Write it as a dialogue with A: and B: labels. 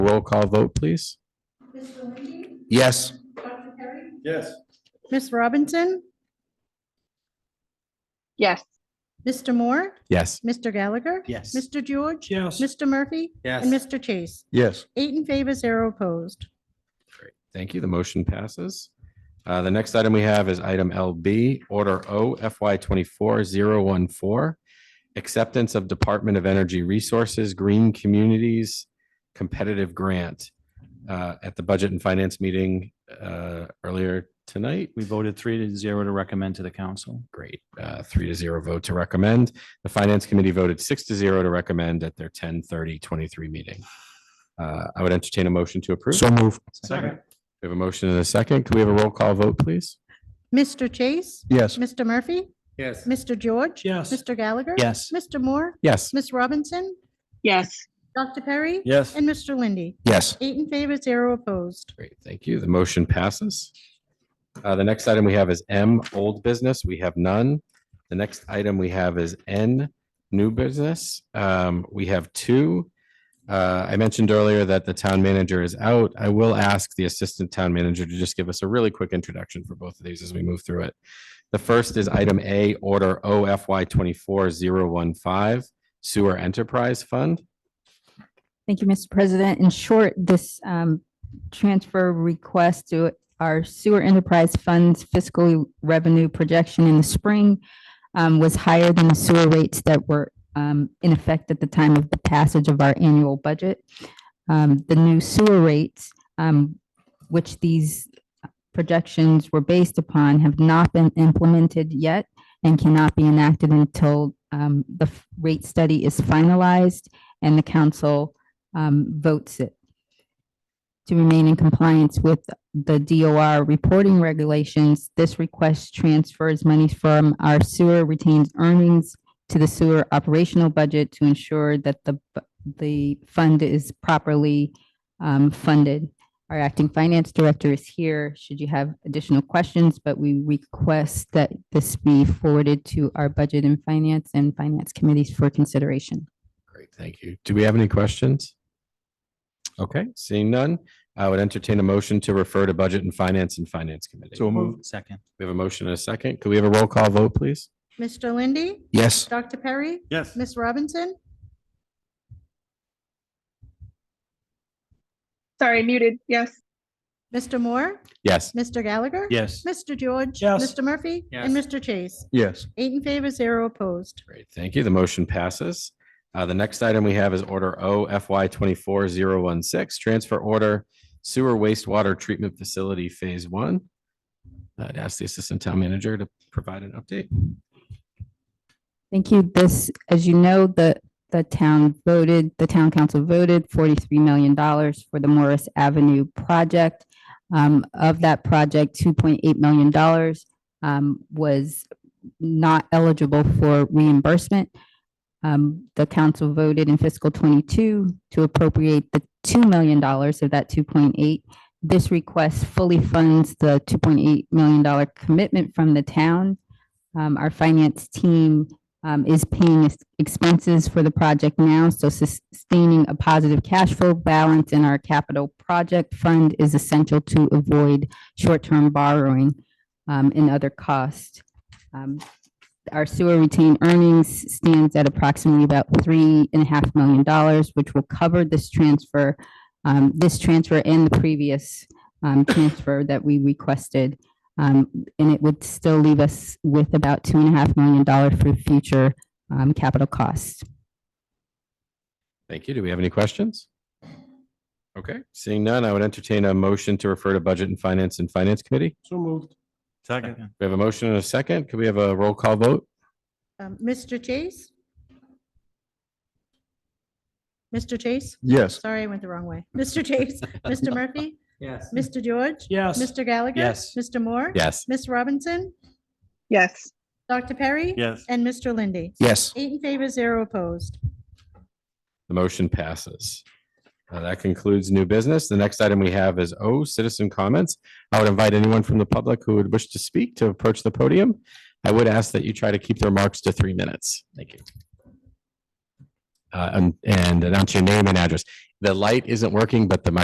A: roll call vote, please.
B: Yes.
C: Yes.
D: Miss Robinson,
E: Yes.
D: Mr. Moore,
A: Yes.
D: Mr. Gallagher,
C: Yes.
D: Mr. George,
C: Yes.
D: Mr. Murphy, and
C: Yes.
D: Mr. Chase.
B: Yes.
D: Eight in favor, zero opposed.
A: Thank you. The motion passes. Uh, The next item we have is item LB, Order O FY 24014, Acceptance of Department of Energy Resources Green Communities Competitive Grant. Uh, At the Budget and Finance meeting uh, earlier tonight,
F: We voted three to zero to recommend to the council.
A: great, uh, three to zero vote to recommend. The Finance Committee voted six to zero to recommend at their 10:30:23 meeting. Uh, I would entertain a motion to approve.
B: So moved.
C: Second.
A: We have a motion and a second. Can we have a roll call vote, please?
D: Mr. Chase,
B: Yes.
D: Mr. Murphy,
C: Yes.
D: Mr. George,
C: Yes.
D: Mr. Gallagher,
F: Yes.
D: Mr. Moore,
A: Yes.
D: Miss Robinson,
E: Yes.
D: Dr. Perry,
C: Yes.
D: and Mr. Lindy.
B: Yes.
D: Eight in favor, zero opposed.
A: Great, thank you. The motion passes. Uh, The next item we have is M, old business. We have none. The next item we have is N, new business. Um, We have two. Uh, I mentioned earlier that the town manager is out. I will ask the assistant town manager to just give us a really quick introduction for both of these as we move through it. The first is item A, order OFY 24015, Sewer Enterprise Fund.
G: Thank you, Mr. President. In short, this um, transfer request to our sewer enterprise funds fiscal revenue projection in the spring um, was higher than the sewer rates that were um, in effect at the time of the passage of our annual budget. Um, The new sewer rates, um, which these projections were based upon, have not been implemented yet and cannot be enacted until um, the f- rate study is finalized and the council um, votes it to remain in compliance with the DOR reporting regulations. This request transfers money from our sewer retained earnings to the sewer operational budget to ensure that the, bu- the fund is properly um, funded. Our acting finance director is here, should you have additional questions, but we request that this be forwarded to our budget and finance and finance committees for consideration.
A: Great, thank you. Do we have any questions? Okay, seeing none, I would entertain a motion to refer to Budget and Finance and Finance Committee.
B: So moved.
F: Second.
A: We have a motion and a second. Could we have a roll call vote, please?
D: Mr. Lindy,
B: Yes.
D: Dr. Perry,
C: Yes.
D: Miss Robinson,
E: Sorry, muted. Yes.
D: Mr. Moore,
A: Yes.
D: Mr. Gallagher,
F: Yes.
D: Mr. George,
C: Yes.
D: Mr. Murphy, and
C: Yes.
D: Mr. Chase.
B: Yes.
D: Eight in favor, zero opposed.
A: Great, thank you. The motion passes. Uh, the next item we have is Order O FY twenty-four zero one six, Transfer Order Sewer Wastewater Treatment Facility Phase One. I'd ask the Assistant Town Manager to provide an update.
G: Thank you. This, as you know, the, the town voted, the town council voted forty-three million dollars for the Morris Avenue project. Um, of that project, two point eight million dollars, um, was not eligible for reimbursement. Um, the council voted in fiscal twenty-two to appropriate the two million dollars of that two point eight. This request fully funds the two point eight million dollar commitment from the town. Um, our finance team, um, is paying its expenses for the project now, so sustaining a positive cash flow balance in our capital project fund is essential to avoid short-term borrowing um, and other costs. Um, Our sewer retained earnings stands at approximately about three and a half million dollars, which will cover this transfer, um, this transfer and the previous um, transfer that we requested. Um, and it would still leave us with about two and a half million dollars for future um, capital costs.
A: Thank you. Do we have any questions? Okay, seeing none, I would entertain a motion to refer to Budget and Finance and Finance Committee.
C: So moved. Second.
A: We have a motion and a second. Could we have a roll call vote?
D: Um, Mr. Chase? Mr. Chase?
B: Yes.
D: Sorry, I went the wrong way. Mr. Chase, Mr. Murphy,
C: Yes.
D: Mr. George,
C: Yes.
D: Mr. Gallagher?
F: Yes.
D: Mr. Moore?
A: Yes.
D: Ms. Robinson,
E: Yes.
D: Dr. Perry?
C: Yes.
D: And Mr. Lindy?
B: Yes.
D: Eight in favor, zero opposed.
A: The motion passes. Uh, That concludes new business. The next item we have is O, citizen comments. I would invite anyone from the public who would wish to speak to approach the podium. I would ask that you try to keep the remarks to three minutes. Thank you. uh, and, and announce your name and address. The light isn't working, but the microphone